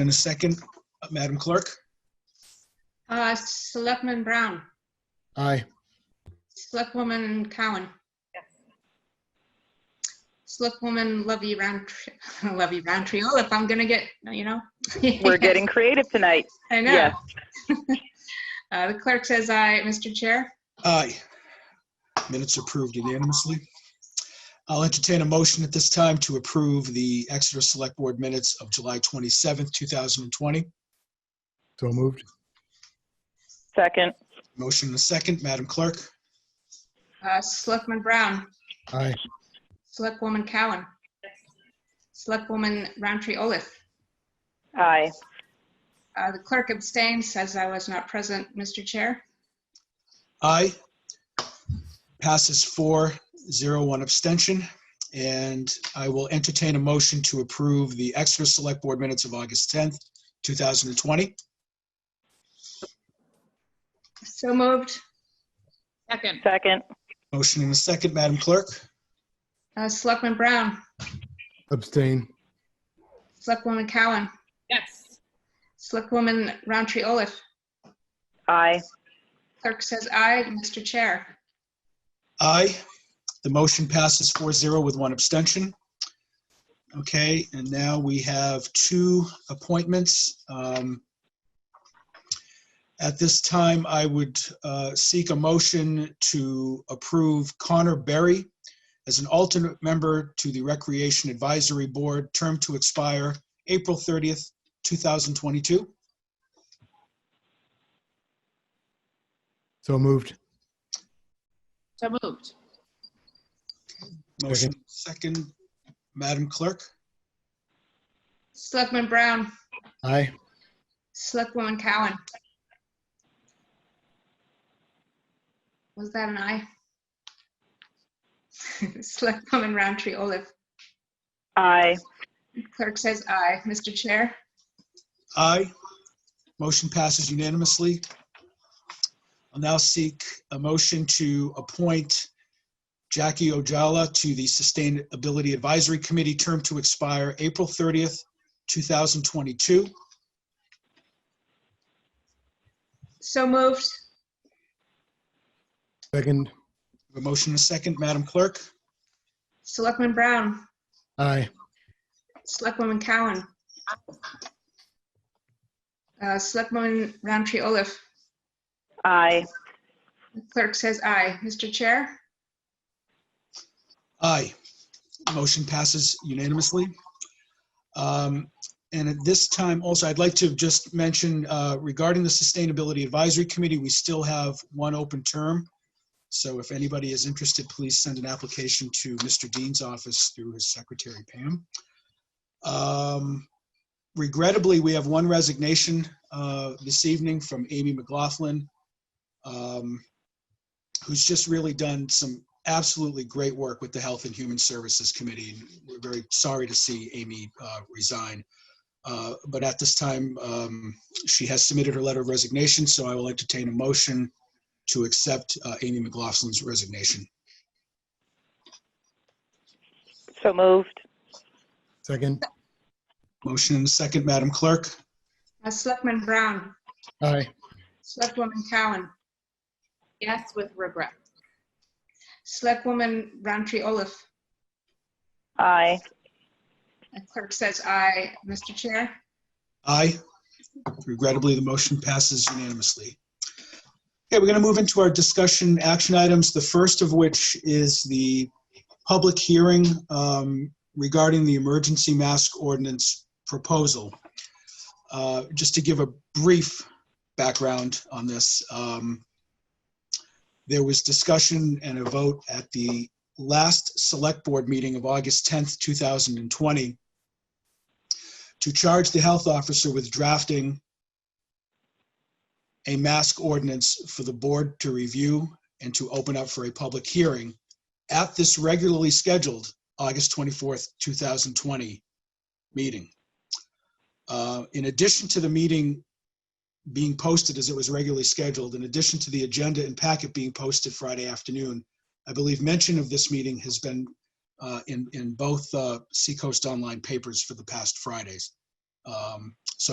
And a second, uh, Madam Clerk? Uh, Selectman Brown, Aye. Selectwoman Cowan. Selectwoman Lovey Roundtree, Lovey Roundtree, oh, if I'm gonna get, you know. We're getting creative tonight. I know. Yes. Uh, The clerk says aye, Mr. Chair. Aye. Minutes approved unanimously. I'll entertain a motion at this time to approve the Exeter Select Board minutes of July 27th, 2020. So moved. Second. Motion and a second, Madam Clerk? Uh, Selectman Brown, Aye. Selectwoman Cowan. Selectwoman Roundtree Olaf. Aye. Uh, The clerk abstains, says I was not present, Mr. Chair. Aye. Passes four, zero, one abstention. And I will entertain a motion to approve the Exeter Select Board minutes of August 10th, 2020. So moved. Second, Second. Motion and a second, Madam Clerk? Uh, Selectman Brown, Abstain. Selectwoman Cowan, yes. Selectwoman Roundtree Olaf. Aye. Clerk says aye. Mr. Chair, Aye. The motion passes 4-0 with one abstention. Okay, and now we have two appointments. Um, At this time, I would uh, seek a motion to approve Connor Berry as an alternate member to the Recreation Advisory Board, term to expire April 30th, 2022. So moved. So moved. Motion second, Madam Clerk? Selectman Brown, Aye. Selectwoman Cowan. Was that an aye? Selectwoman Roundtree Olaf. Aye. Clerk says aye. Mr. Chair, Aye. Motion passes unanimously. I'll now seek a motion to appoint Jackie Ojala to the Sustainability Advisory Committee, term to expire April 30th, 2022. so moved. Second. A motion and a second, Madam Clerk? Selectman Brown, Aye. Selectwoman Cowan. Uh, Selectwoman Roundtree Olaf. Aye. Clerk says aye. Mr. Chair, Aye. Motion passes unanimously. Um, And at this time, also, I'd like to just mention uh, regarding the Sustainability Advisory Committee, we still have one open term. So if anybody is interested, please send an application to Mr. Dean's office through his secretary, Pam. Um, Regrettably, we have one resignation uh, this evening from Amy McLaughlin, um, who's just really done some absolutely great work with the Health and Human Services Committee. and We're very sorry to see Amy uh, resign. Uh, But at this time, um, she has submitted her letter of resignation, so I will entertain a motion to accept uh, Amy McLaughlin's resignation. So moved. Second. Motion and a second, Madam Clerk. Uh, Selectman Brown, Aye. Selectwoman Cowan, Yes, with regret. Selectwoman Roundtree Olaf. Aye. The Clerk says aye. Mr. Chair, Aye. Regrettably, the motion passes unanimously. Okay, we're going to move into our discussion action items, the first of which is the public hearing um, regarding the emergency mask ordinance proposal. Uh, Just to give a brief background on this, um, there was discussion and a vote at the last Select Board meeting of August 10th, 2020, to charge the health officer with drafting a mask ordinance for the board to review and to open up for a public hearing at this regularly scheduled August 24th, 2020 meeting. Uh, In addition to the meeting being posted as it was regularly scheduled, in addition to the agenda and packet being posted Friday afternoon, I believe mention of this meeting has been uh, in, in both uh, Seacoast Online papers for the past Fridays. Um,